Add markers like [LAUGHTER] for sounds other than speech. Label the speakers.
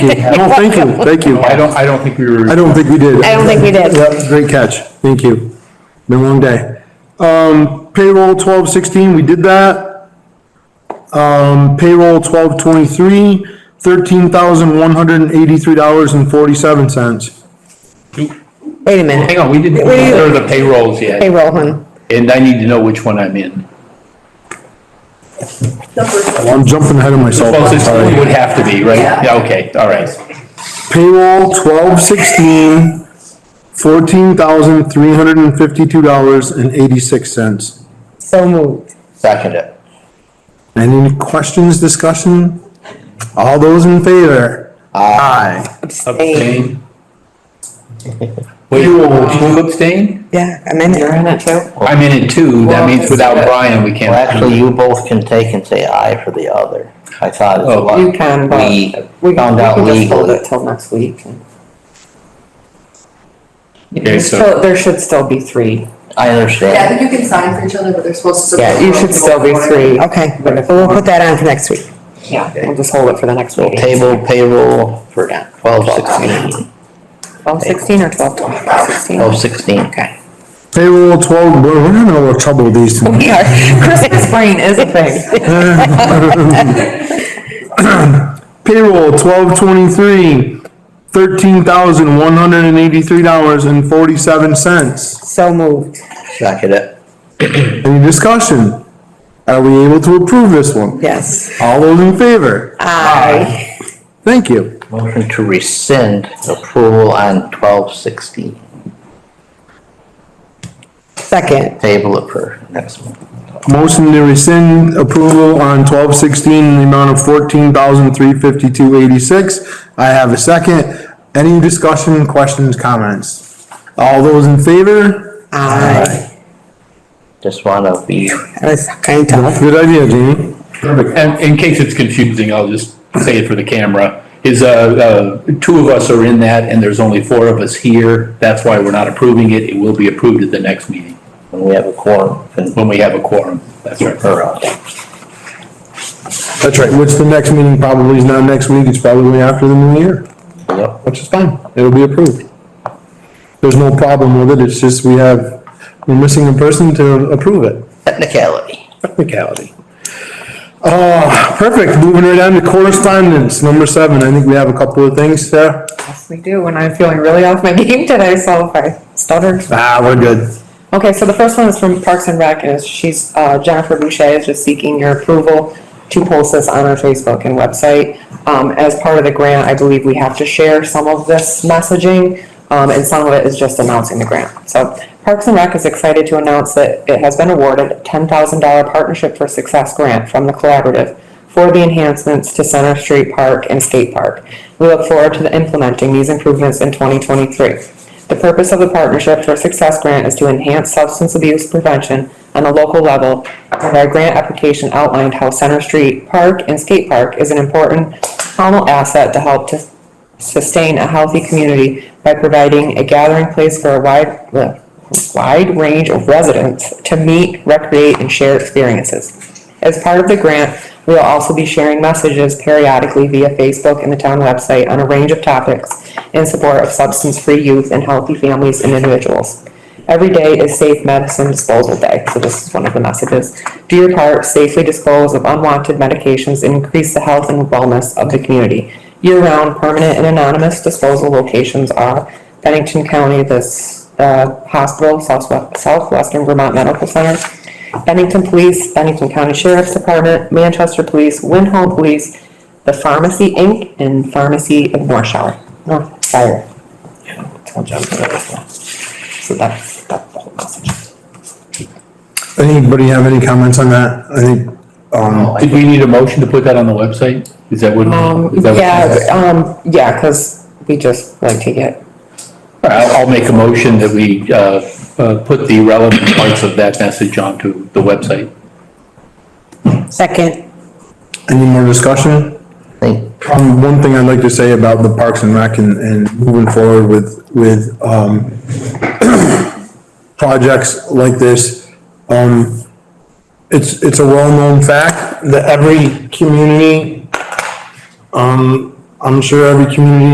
Speaker 1: did have.
Speaker 2: Oh, thank you, [LAUGHS] thank you.
Speaker 1: I don't, I don't think we were.
Speaker 2: I don't think we did.
Speaker 3: I don't think we did.
Speaker 2: Yeah, great catch. Thank you. Been a long day. Um, payroll twelve sixteen, we did that. Um, payroll twelve twenty-three, thirteen thousand one hundred and eighty-three dollars and forty-seven cents.
Speaker 3: Wait a minute,
Speaker 1: Hang on, we didn't
Speaker 3: Wait, wait,
Speaker 1: order the payrolls yet,
Speaker 3: payroll, hun.
Speaker 1: and I need to know which one I'm in.
Speaker 2: I'm jumping ahead of myself.
Speaker 1: Well,
Speaker 2: I'm
Speaker 1: this
Speaker 2: sorry.
Speaker 1: would have to be, right? Yeah, okay, all right.
Speaker 2: Payroll twelve sixteen, fourteen thousand three hundred and fifty-two dollars and eighty-six cents.
Speaker 3: So moved.
Speaker 1: Second it.
Speaker 2: Any questions, discussion? All those in favor? Aye.
Speaker 3: Abstain.
Speaker 1: Wait, you will abstain?
Speaker 3: Yeah, I'm in
Speaker 4: You're
Speaker 3: it.
Speaker 4: in it too?
Speaker 1: I'm in it too, that means without Brian, we
Speaker 5: Well,
Speaker 1: can't.
Speaker 5: actually, you both can take and say aye for the other. I thought it
Speaker 1: Oh.
Speaker 5: was.
Speaker 4: You can, but
Speaker 5: We
Speaker 4: we can
Speaker 5: found out
Speaker 4: we can just hold
Speaker 5: legally.
Speaker 4: it till next week. and-
Speaker 1: Okay,
Speaker 4: There's
Speaker 1: so-
Speaker 4: still- There should still be three.
Speaker 5: I
Speaker 6: Yeah, I
Speaker 5: understand.
Speaker 6: think you can sign for each other, but they're supposed to.
Speaker 4: Yeah, you should still be three.
Speaker 3: Okay, but we'll put that on for next week.
Speaker 4: Yeah, we'll just hold it for the next
Speaker 5: We'll
Speaker 4: meeting.
Speaker 5: table payroll for twelve sixteen,
Speaker 3: Twelve sixteen or twelve twenty? Sixteen.
Speaker 5: twelve sixteen. Okay.
Speaker 2: Payroll twelve, we're we're having a little trouble with these
Speaker 3: [LAUGHS]
Speaker 2: tonight.
Speaker 3: We are, Christmas brain is a thing.
Speaker 2: Payroll twelve twenty-three, thirteen thousand one hundred and eighty-three dollars and forty-seven cents.
Speaker 3: So moved.
Speaker 5: Second it.
Speaker 2: Any discussion? Are we able to approve this one?
Speaker 3: Yes.
Speaker 2: All those in favor? Thank you.
Speaker 5: Motion to rescind approval on twelve sixteen.
Speaker 3: Second.
Speaker 5: Table it for next month.
Speaker 2: Motion to rescind approval on twelve sixteen in the amount of fourteen thousand three fifty-two eighty-six. I have a second. Any discussion, questions, comments? All those in favor?
Speaker 3: Aye.
Speaker 5: Just wanna be,
Speaker 3: That was kind of tough.
Speaker 2: Good idea, Jamie.
Speaker 1: And in case it's confusing, I'll just say it for the camera, is, uh, uh, two of us are in that, and there's only four of us here. That's why we're not approving it. It will be approved at the next meeting,
Speaker 5: when we have a quorum, and
Speaker 1: when we have a quorum. That's right.
Speaker 5: or, uh,
Speaker 2: That's right, which the next meeting probably is not next week, it's probably after the new year,
Speaker 5: yep,
Speaker 2: which is fine, it'll be approved. There's no problem with it, it's just we have, we're missing a person to approve it,
Speaker 5: technicality.
Speaker 2: technicality. Uh, perfect, moving right on to correspondence, number seven, I think we have a couple of things, Sarah?
Speaker 4: Yes, we do, and I'm feeling really off my game today, so if I stuttered.
Speaker 2: Ah, we're good.
Speaker 4: Okay, so the first one is from Parks and Rec, and she's, uh, Jennifer Boucher is just seeking your approval to post this on our Facebook and website. Um, as part of the grant, I believe we have to share some of this messaging, um, and some of it is just announcing the grant. So Parks and Rec is excited to announce that it has been awarded a ten thousand dollar partnership for success grant from the collaborative for the enhancements to Center Street Park and Skate Park. We look forward to implementing these improvements in twenty twenty-three. The purpose of the Partnership for Success Grant is to enhance substance abuse prevention on a local level, and our grant application outlined how Center Street Park and Skate Park is an important communal asset to help to sustain a healthy community by providing a gathering place for a wide, uh, wide range of residents to meet, recreate, and share experiences. As part of the grant, we will also be sharing messages periodically via Facebook and the town website on a range of topics in support of substance-free youth and healthy families and individuals. Every day is Safe Medicine Disposal Day, so this is one of the messages. Do your part, safely dispose of unwanted medications, and increase the health and wellness of the community. Year-round, permanent and anonymous disposal locations are Bennington County, this, uh, hospital, Southwest, Southwestern Vermont Medical Center, Bennington Police, Bennington County Sheriff's Department, Manchester Police, Winhall Police, the Pharmacy Inc., and Pharmacy of North Shore, North Shire. Told you I'm gonna miss that. So that's, that's the whole message.
Speaker 2: Anybody have any comments on that? I think, um,
Speaker 1: Did we need a motion to put that on the website? Is that what?
Speaker 4: Um,
Speaker 1: is that what-
Speaker 4: yeah, um, yeah, cause we just like to get,
Speaker 1: All right, I'll, I'll make a motion that we, uh, uh, put the relevant parts of that message onto the website.
Speaker 3: Second.
Speaker 2: any more discussion?
Speaker 5: Think,
Speaker 2: Um, one thing I'd like to say about the Parks and Rec and, and moving forward with, with, um, [CLEARS THROAT] projects like this, um, it's, it's a well-known fact that every community, um, I'm sure every community